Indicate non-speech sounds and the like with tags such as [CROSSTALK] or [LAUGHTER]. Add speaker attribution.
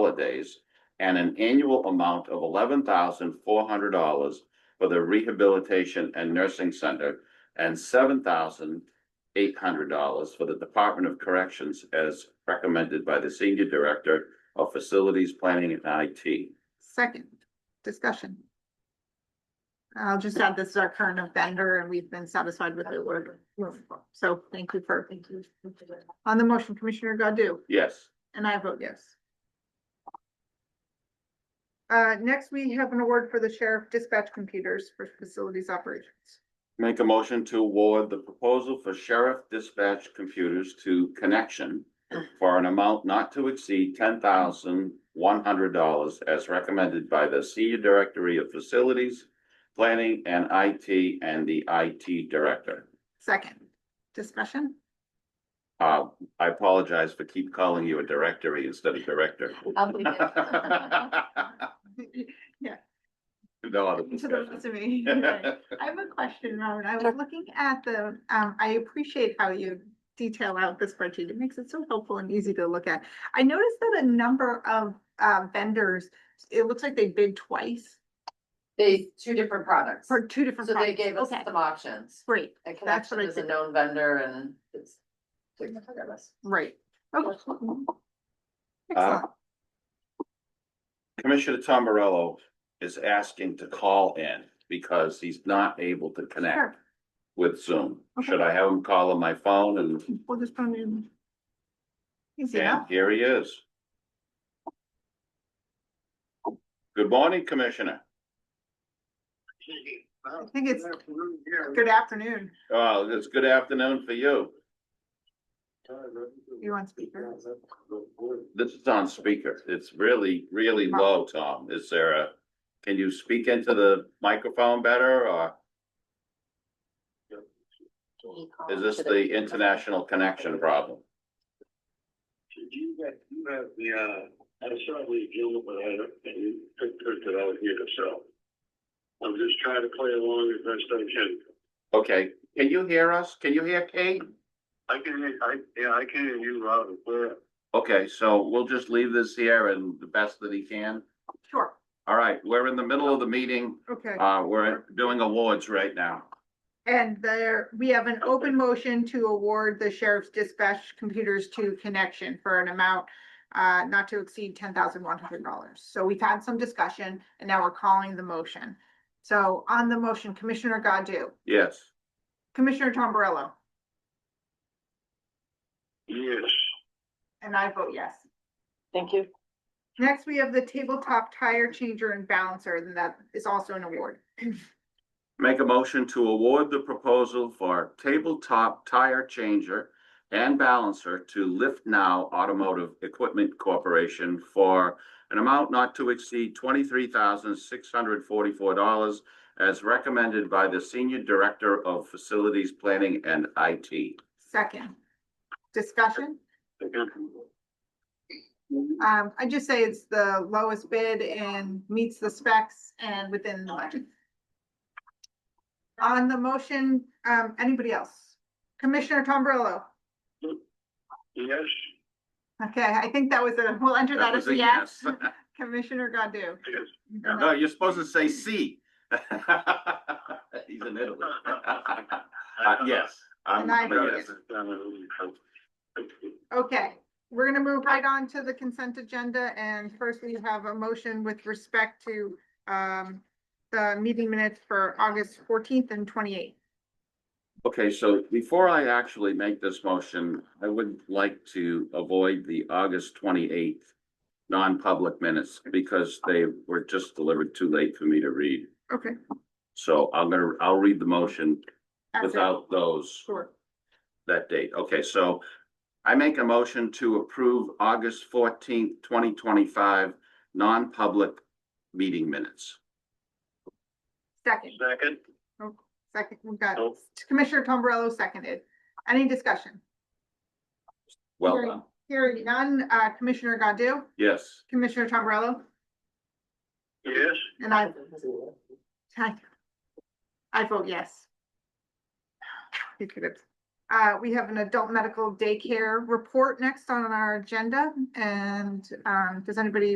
Speaker 1: holidays and an annual amount of eleven thousand four hundred dollars for the Rehabilitation and Nursing Center and seven thousand eight hundred dollars for the Department of Corrections as recommended by the Senior Director of Facilities Planning and IT.
Speaker 2: Second, discussion. I'll just add, this is our current vendor and we've been satisfied with it. We're- we're- So thank you for, thank you. On the motion, Commissioner Godu,
Speaker 1: Yes,
Speaker 2: and I vote yes. Uh, next, we have an award for the sheriff dispatch computers for facilities operations.
Speaker 1: make a motion to award the proposal for sheriff dispatch computers to Connection for an amount not to exceed ten thousand one hundred dollars as recommended by the Senior Directory of Facilities Planning and IT and the IT Director.
Speaker 2: Second, discussion?
Speaker 1: Uh, I apologize for keep calling you a directory instead of director.
Speaker 2: [LAUGHS]
Speaker 3: I'll
Speaker 1: [LAUGHS]
Speaker 3: be there.
Speaker 1: No
Speaker 2: Yeah.
Speaker 1: other
Speaker 2: To the
Speaker 1: discussion.
Speaker 2: resume.
Speaker 1: [LAUGHS]
Speaker 2: I have a question, Robin. I was looking at the, um, I appreciate how you detail out the spreadsheet. It makes it so helpful and easy to look at. I noticed that a number of, uh, vendors, it looks like they bid twice
Speaker 3: They, two different products,
Speaker 2: for two different.
Speaker 3: so they
Speaker 2: products.
Speaker 3: gave us
Speaker 2: Okay,
Speaker 3: some options.
Speaker 2: Great,
Speaker 3: And
Speaker 2: That's what
Speaker 3: Connection
Speaker 2: I
Speaker 3: is a
Speaker 2: did.
Speaker 3: known vendor and it's. took care of us.
Speaker 2: right. Okay.
Speaker 1: Uh,
Speaker 2: Excellent.
Speaker 1: Commissioner Tom Morello is asking to call in because he's not able to
Speaker 2: Sure.
Speaker 1: connect with Zoom.
Speaker 2: Okay.
Speaker 1: Should I have him call on my phone and,
Speaker 2: We'll just put them in. Easy
Speaker 1: and
Speaker 2: enough.
Speaker 1: here he is. Good morning, Commissioner.
Speaker 2: I think it's, good afternoon.
Speaker 1: Oh, it's good afternoon for you.
Speaker 2: You want speaker?
Speaker 1: This is on speaker. It's really, really
Speaker 2: Uh-huh.
Speaker 1: low, Tom. Is there a, can you speak into the microphone better or is this the international connection problem?
Speaker 4: You got, you have the, uh, I saw the deal but I don't, and you picked it out here, so. I'm just trying to play along as best I can.
Speaker 1: Okay, can you hear us? Can you hear Kate?
Speaker 4: I can, hear- I, yeah, I can hear you loud and clear.
Speaker 1: Okay, so we'll just leave this here and the best that he can.
Speaker 2: Sure,
Speaker 1: All right, we're in the middle of the meeting.
Speaker 2: okay.
Speaker 1: Uh, we're doing awards right now.
Speaker 2: And there, we have an open motion to award the sheriff's dispatch computers to Connection for an amount uh, not to exceed ten thousand one hundred dollars. So we've had some discussion and now we're calling the motion. So on the motion, Commissioner Godu,
Speaker 1: Yes,
Speaker 2: Commissioner Tom Barello,
Speaker 4: Yes,
Speaker 2: and I vote yes.
Speaker 3: Thank you.
Speaker 2: Next, we have the tabletop tire changer and balancer, and that is also an award.
Speaker 1: make a motion to award the proposal for tabletop tire changer and balancer to Lift Now Automotive Equipment Corporation for an amount not to exceed twenty-three thousand six hundred forty-four dollars as recommended by the Senior Director of Facilities Planning and IT.
Speaker 2: Second, discussion?
Speaker 4: I can.
Speaker 2: Um, I just say it's the lowest bid and meets the specs and within the budget. On the motion, um, anybody else? Commissioner Tom Barello.
Speaker 4: Yes,
Speaker 2: Okay, I think that was a, we'll enter
Speaker 1: That
Speaker 2: that
Speaker 1: was
Speaker 2: as
Speaker 1: a
Speaker 2: a yes.
Speaker 1: yes.
Speaker 2: Commissioner Godu.
Speaker 4: yes.
Speaker 1: No, you're supposed to say C. [LAUGHS] He's in Italy. Uh, yes, I'm,
Speaker 2: And I
Speaker 1: I'm a
Speaker 2: vote
Speaker 1: yes.
Speaker 2: Okay, we're gonna move right on to the consent agenda and first we have a motion with respect to, um, the meeting minutes for August fourteenth and twenty-eighth.
Speaker 1: Okay, so before I actually make this motion, I would like to avoid the August twenty-eighth non-public minutes because they were just delivered too late for me to read.
Speaker 2: Okay.
Speaker 1: So I'm gonna, I'll read the motion
Speaker 2: that's it.
Speaker 1: without those.
Speaker 2: Sure.
Speaker 1: that date. Okay, so I make a motion to approve August fourteenth, twenty twenty-five, non-public meeting minutes.
Speaker 2: Second.
Speaker 4: Second,
Speaker 2: Second, we've got
Speaker 4: Nope.
Speaker 2: Commissioner Tombrello seconded. Any discussion?
Speaker 1: Well
Speaker 2: Hearing-
Speaker 1: done.
Speaker 2: Hearing none, uh, Commissioner Godu,
Speaker 1: Yes.
Speaker 2: Commissioner Tombrello,
Speaker 4: yes,
Speaker 2: and I, I vote yes. You could have Uh, we have an adult medical daycare report next on our agenda, and, um, does anybody